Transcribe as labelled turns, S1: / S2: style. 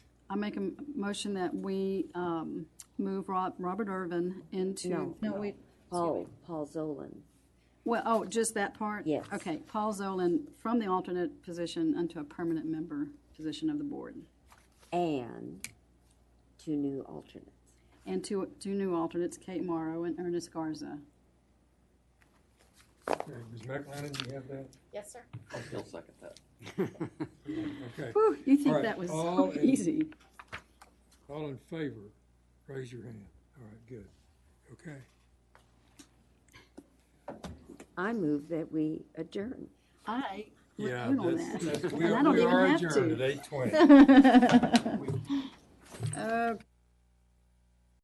S1: I make a m- motion that we um, move Rob, Robert Irvin into,
S2: No.
S1: no, we,
S2: Paul, Paul Zolan.
S1: well, oh, just that part?
S2: Yes.
S1: Okay, Paul Zolan from the alternate position unto a permanent member position of the board.
S2: And two new alternates.
S1: And two, two new alternates, Kate Morrow and Ernest Garza.
S3: Okay, Ms. McLennan, you have that?
S4: Yes, sir.
S5: He'll second that.
S3: Okay,
S1: Whew, you
S3: All
S1: think
S3: right,
S1: that was
S3: all
S1: so
S3: in-
S1: easy.
S3: all in favor, raise your hand. All right, good. Okay,
S2: I move that we adjourn.
S1: I would
S3: yeah,
S1: vote on
S3: that's,
S1: that.
S3: that's, we
S1: And I
S3: are
S1: don't
S3: we
S1: even
S3: are
S1: have
S3: adjourned
S1: to.
S3: at eight twenty.
S1: Okay.